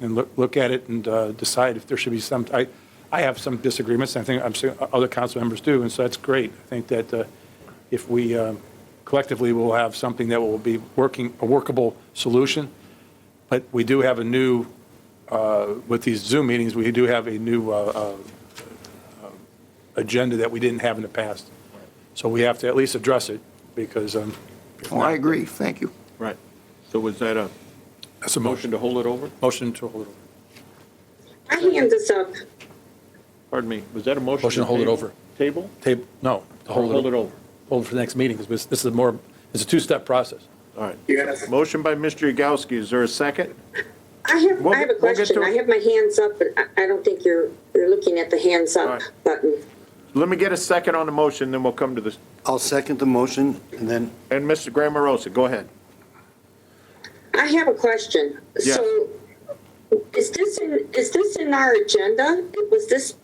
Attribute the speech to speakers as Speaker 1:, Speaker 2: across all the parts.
Speaker 1: and look, look at it and uh, decide if there should be some, I, I have some disagreements, and I think I'm sure uh, other council members do, and so that's great. I think that uh, if we um, collectively will have something that will be working, a workable solution, but we do have a new, uh, with these Zoom meetings, we do have a new uh, uh, agenda that we didn't have in the past. So we have to at least address it, because um,
Speaker 2: Oh, I agree, thank you.
Speaker 3: Right. So was that a
Speaker 1: that's a motion,
Speaker 3: motion to hold it over?
Speaker 1: motion to hold it over.
Speaker 4: My hand is up.
Speaker 3: Pardon me, was that a motion?
Speaker 1: Motion to hold it
Speaker 3: table-
Speaker 1: over.
Speaker 3: Table?
Speaker 1: Table, no, to
Speaker 3: Or Hold it over.
Speaker 1: Hold it for the next meeting, because this is more, it's a two-step process.
Speaker 3: All right. Motion by Mr. Yagowski, is there a second?
Speaker 4: I have,
Speaker 3: We'll
Speaker 4: I have a
Speaker 3: get- we'll get
Speaker 4: question.
Speaker 3: to
Speaker 4: I
Speaker 3: it.
Speaker 4: have my hands up, but I, I don't think you're, you're looking at the hands
Speaker 3: All
Speaker 4: up
Speaker 3: right.
Speaker 4: button.
Speaker 3: Let me get a second on the motion, then we'll come to this.
Speaker 5: I'll second the motion, and then
Speaker 3: And Mr. Grammerosa, go ahead.
Speaker 4: I have a question.
Speaker 3: Yes.
Speaker 4: So is this in, is this in our agenda? Was this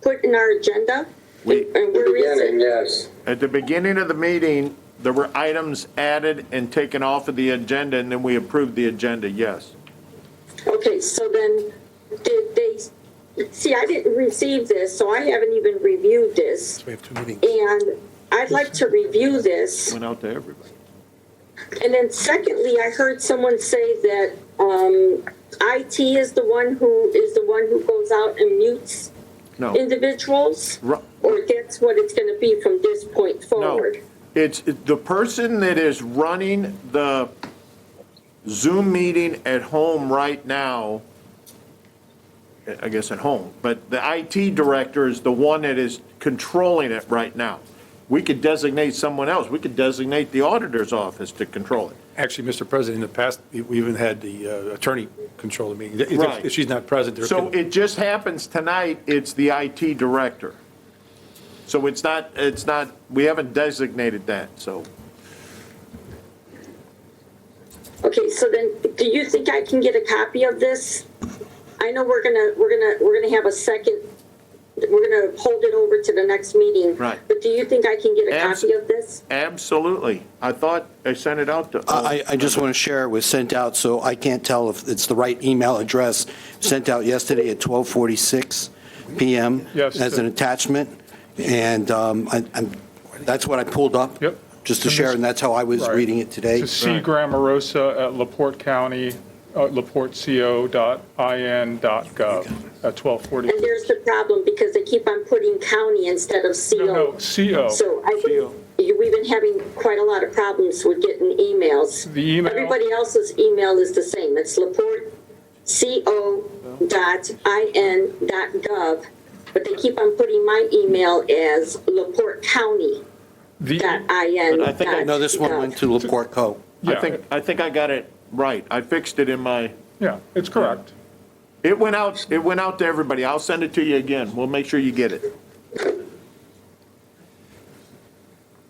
Speaker 4: put in our agenda?
Speaker 3: We-
Speaker 4: And where is
Speaker 6: Beginning,
Speaker 4: it?
Speaker 6: yes.
Speaker 3: At the beginning of the meeting, there were items added and taken off of the agenda, and then we approved the agenda, yes.
Speaker 4: Okay, so then did they, see, I didn't receive this, so I haven't even reviewed this.
Speaker 1: We have two meetings.
Speaker 4: And I'd like to review this.
Speaker 3: Went out to everybody.
Speaker 4: And then secondly, I heard someone say that um, IT is the one who is the one who goes out and mutes
Speaker 3: No.
Speaker 4: individuals,
Speaker 3: Ru-
Speaker 4: or that's what it's going to be from this point
Speaker 3: No,
Speaker 4: forward.
Speaker 3: it's the person that is running the Zoom meeting at home right now, I guess at home, but the IT director is the one that is controlling it right now. We could designate someone else. We could designate the auditor's office to control it.
Speaker 1: Actually, Mr. President, in the past, we we even had the uh, attorney control the meeting. If-
Speaker 3: Right.
Speaker 1: If she's not present, there
Speaker 3: So
Speaker 1: can,
Speaker 3: it just happens tonight, it's the IT director. So it's not, it's not, we haven't designated that, so.
Speaker 4: Okay, so then, do you think I can get a copy of this? I know we're gonna we're gonna we're gonna have a second. We're gonna hold it over to the next meeting.
Speaker 3: Right.
Speaker 4: But do you think I can get a
Speaker 3: Abs-
Speaker 4: copy of this?
Speaker 3: Absolutely. I thought I sent it out to.
Speaker 5: I, I just want to share, it was sent out, so I can't tell if it's the right email address, sent out yesterday at 12:46 PM
Speaker 1: Yes.
Speaker 5: as an attachment, and um, I- I'm, that's what I pulled up.
Speaker 7: Yep.
Speaker 5: Just to share, and that's how I was
Speaker 7: Right.
Speaker 5: reading it today.
Speaker 7: To C. Grammarosa at LaPorte County, uh, laporteco.in.gov at 1240.
Speaker 4: And there's the problem because they keep on putting county instead of CO.
Speaker 7: No, CO.
Speaker 4: So I think you- we've been having quite a lot of problems with getting emails.
Speaker 7: The email-
Speaker 4: Everybody else's email is the same. It's laporteco.in.gov, but they keep on putting my email as laportecounty.in.
Speaker 7: The- E.
Speaker 3: But I think I
Speaker 5: No, this one went to LaPorte Co.
Speaker 3: I
Speaker 7: Yeah,
Speaker 3: think, I think I got it right. I fixed it in my,
Speaker 7: yeah, it's correct.
Speaker 3: it went out, it went out to everybody. I'll send it to you again. We'll make sure you get it.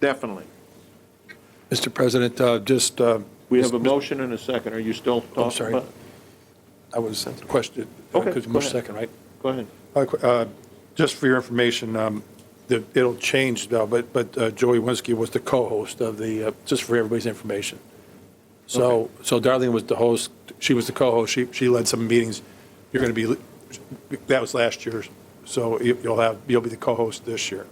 Speaker 3: Definitely.
Speaker 1: Mr. President, uh, just, uh,
Speaker 3: We have a motion and a second. Are you still
Speaker 1: I'm
Speaker 3: talking
Speaker 1: sorry.
Speaker 3: about?
Speaker 1: I was questioned,
Speaker 3: Okay,
Speaker 1: because
Speaker 3: go
Speaker 1: March
Speaker 3: ahead.
Speaker 1: second, right?
Speaker 3: Go ahead.
Speaker 1: Uh, qu- uh, Just for your information, um, the- it'll change, though, but but uh, Joey Winsky was the co-host of the, uh, just for everybody's information. So, so Darlene was the host, she was the co-host, she she led some meetings. You're going to be, that was last year, so you- you'll have, you'll be the co-host this year.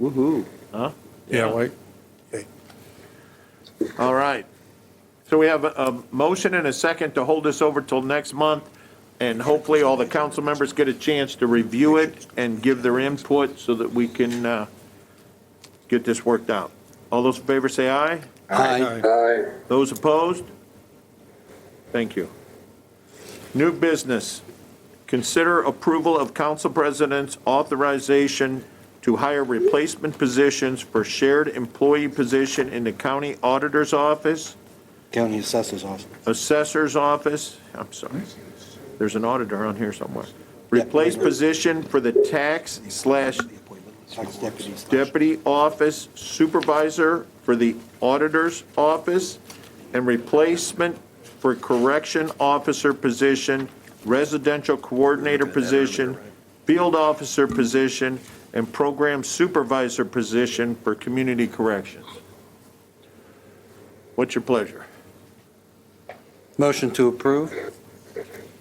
Speaker 2: Woo-hoo.
Speaker 3: Huh?
Speaker 1: Yeah, right? Okay.
Speaker 3: All right. So we have a, a motion and a second to hold this over till next month, and hopefully all the council members get a chance to review it and give their input so that we can, uh, get this worked out. All those in favor say aye.
Speaker 5: Aye.
Speaker 6: Aye.
Speaker 3: Those opposed? Thank you. New business, consider approval of council president's authorization to hire replacement positions for shared employee position in the county auditor's office,
Speaker 5: County Assessor's Office.
Speaker 3: assessor's office, I'm sorry, there's an auditor on here somewhere.
Speaker 5: Yeah.
Speaker 3: Replace position for the tax slash
Speaker 5: Tax deputies.
Speaker 3: deputy office supervisor for the auditor's office and replacement for correction officer position, residential coordinator position, field officer position, and program supervisor position for community corrections. What's your pleasure?
Speaker 5: Motion to approve?